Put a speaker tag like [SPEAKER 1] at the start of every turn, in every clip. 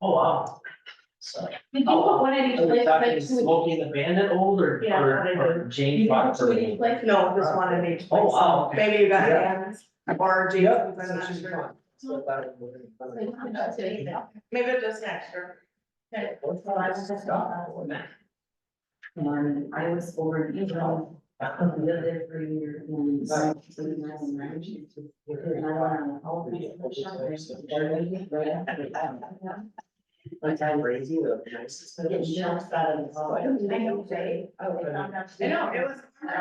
[SPEAKER 1] Oh, wow. So,
[SPEAKER 2] Did you put one in each
[SPEAKER 1] I was
[SPEAKER 2] place, like
[SPEAKER 1] talking
[SPEAKER 2] two in-
[SPEAKER 1] Smokey and the Bandit old or,
[SPEAKER 2] Yeah,
[SPEAKER 1] or- or
[SPEAKER 2] did you
[SPEAKER 1] James
[SPEAKER 2] put
[SPEAKER 1] Fox?
[SPEAKER 2] two in each place?
[SPEAKER 3] No, just one in each
[SPEAKER 1] Oh,
[SPEAKER 3] place.
[SPEAKER 1] wow, okay.
[SPEAKER 3] Maybe you got
[SPEAKER 1] Yeah.
[SPEAKER 3] Dan's or
[SPEAKER 1] Yep.
[SPEAKER 3] Jason's, I'm not sure.
[SPEAKER 1] So that would-
[SPEAKER 3] Maybe just next year.
[SPEAKER 1] What's
[SPEAKER 2] So I was just, uh,
[SPEAKER 4] Um, I was over in Israel, I lived there for a year and so it's really nice and ranch. And I went on all kinds of shoppers. But I was
[SPEAKER 1] Crazy, the nicest.
[SPEAKER 4] getting jumps out of
[SPEAKER 2] I
[SPEAKER 4] the.
[SPEAKER 2] know, Jay. Oh, it's not enough to-
[SPEAKER 3] I know, it was. It wasn't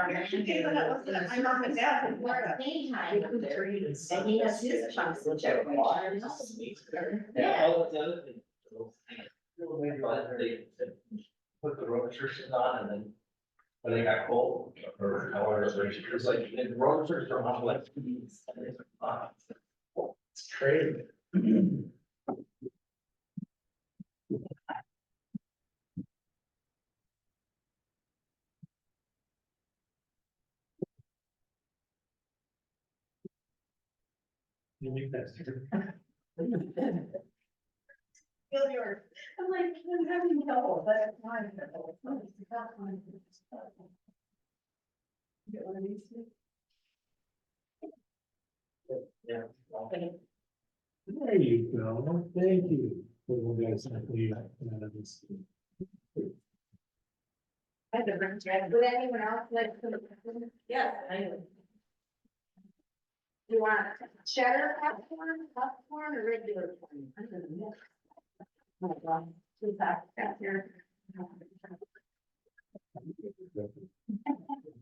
[SPEAKER 3] at my mom and dad's in Florida.
[SPEAKER 2] Daytime up there. And he has his chunks of check.
[SPEAKER 1] Yeah,
[SPEAKER 2] Yeah.
[SPEAKER 1] oh, the other thing. But they- they Put the road restrictions on and then. When they got cold or however, it was like, and the road restrictions are on like. uh, It's crazy. You think that's true?
[SPEAKER 3] Feel yours.
[SPEAKER 2] I'm like, I'm having trouble, but it's fine. It's not fine. Get one of these.
[SPEAKER 1] Yeah.
[SPEAKER 5] There you go, thank you. Well, guys, I believe that is-
[SPEAKER 3] I had to bring Jen.
[SPEAKER 2] Would anyone else like to? Yes, I know. You want cheddar popcorn, popcorn or regular corn? I'm gonna mix. Oh my God, two packs out here.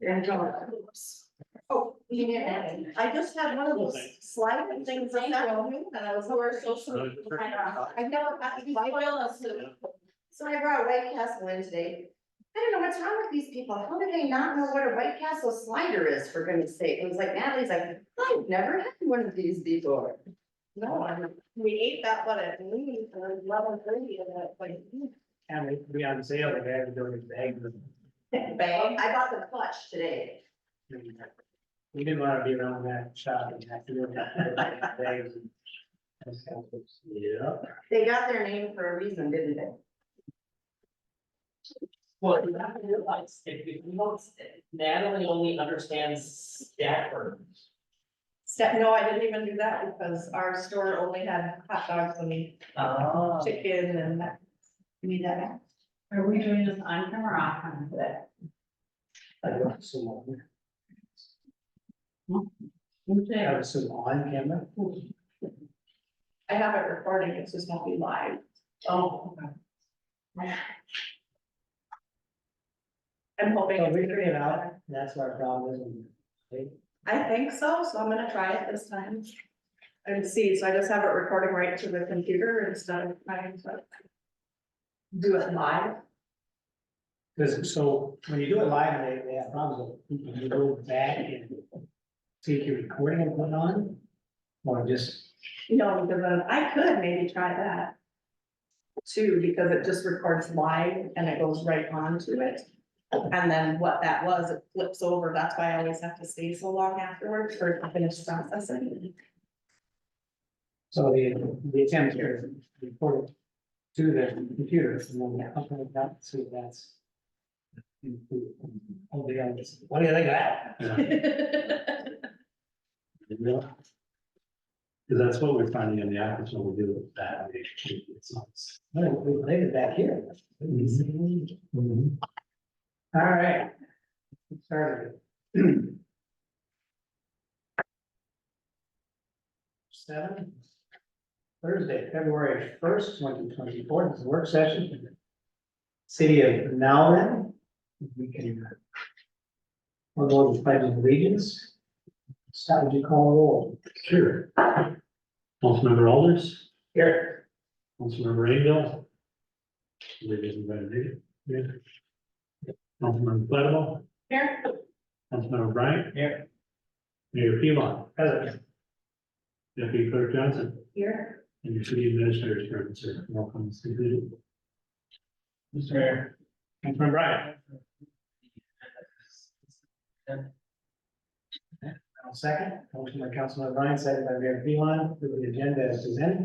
[SPEAKER 2] There you go.
[SPEAKER 3] Oh,
[SPEAKER 2] You need that?
[SPEAKER 3] I just had one of those
[SPEAKER 5] Okay.
[SPEAKER 3] sliding things of that one, and I was over social. I've never had these spoil us. So I brought White Castle in today. I don't know what's wrong with these people. How do they not know what a White Castle slider is, for goodness sake? It was like Natalie's like, I've never had one of these before. No, I'm- we ate that one at noon, or eleven thirty, and that, like,
[SPEAKER 5] And we, we on sale, they had to go to the egg.
[SPEAKER 3] bang, I bought the clutch today.
[SPEAKER 5] We didn't want to be around that shop and have to look at the eggs. Yeah.
[SPEAKER 3] They got their name for a reason, didn't they?
[SPEAKER 1] Well, you have to realize, if you don't, Natalie only understands Stafford.
[SPEAKER 3] Step, no, I didn't even do that because our store only had hot dogs and
[SPEAKER 5] Ah.
[SPEAKER 1] Oh.
[SPEAKER 3] chicken and that.
[SPEAKER 4] You need that back? Are we doing this on camera or off camera today?
[SPEAKER 5] I got some on.
[SPEAKER 1] Oh,
[SPEAKER 5] I
[SPEAKER 4] Okay.
[SPEAKER 5] have some on camera.
[SPEAKER 3] I have it recording, it's just won't be live.
[SPEAKER 1] Oh.
[SPEAKER 3] I'm hoping.
[SPEAKER 1] Oh,
[SPEAKER 5] So
[SPEAKER 3] it's
[SPEAKER 5] we
[SPEAKER 3] gonna be
[SPEAKER 5] figured it
[SPEAKER 3] better.
[SPEAKER 5] out, that's where our problem is.
[SPEAKER 3] I think so, so I'm gonna try it this time. And see, so I just have it recording right to the computer instead of my, so. Do it live.
[SPEAKER 5] Because so when you do it live, they, they have problems, with you can go back and take your recording and put it on. Or just,
[SPEAKER 3] No, because then I could maybe try that. Too, because it just records live and it goes right on to it. And then what that was, it flips over, that's why I always have to stay so long afterwards for it to finish processing.
[SPEAKER 5] so the, the attempt here is to record it to the computer, and then upload that, so that's. Oh, the others, what do you think of that?
[SPEAKER 6] Because that's what we're finding in the office when we do it that way. It's not.
[SPEAKER 5] No, we played it back here.
[SPEAKER 6] Mhm.
[SPEAKER 5] All right. Get Started. Seven. Thursday, February first, twenty twenty-four, this is a work session. City of Nowlan. We can. uh, We'll go to pledge of allegiance. Scott, would you call a roll?
[SPEAKER 6] Sure. Councilmember Alders,
[SPEAKER 5] Here.
[SPEAKER 6] Councilmember Rainville. Maybe everybody did. Yeah. Councilmember Flattable,
[SPEAKER 3] Here,
[SPEAKER 6] Councilmember Bryant,
[SPEAKER 5] Here.
[SPEAKER 6] Mayor Pilon,
[SPEAKER 5] President.
[SPEAKER 6] Deputy Clerk Johnson,
[SPEAKER 3] here.
[SPEAKER 6] and your city administrator's present, sir. Welcome.
[SPEAKER 5] Mr. Mayor.
[SPEAKER 6] Councilmember Bryant.
[SPEAKER 5] Second, motion by Councilman Ryan, second by Mayor Phelan, for the agenda as presented.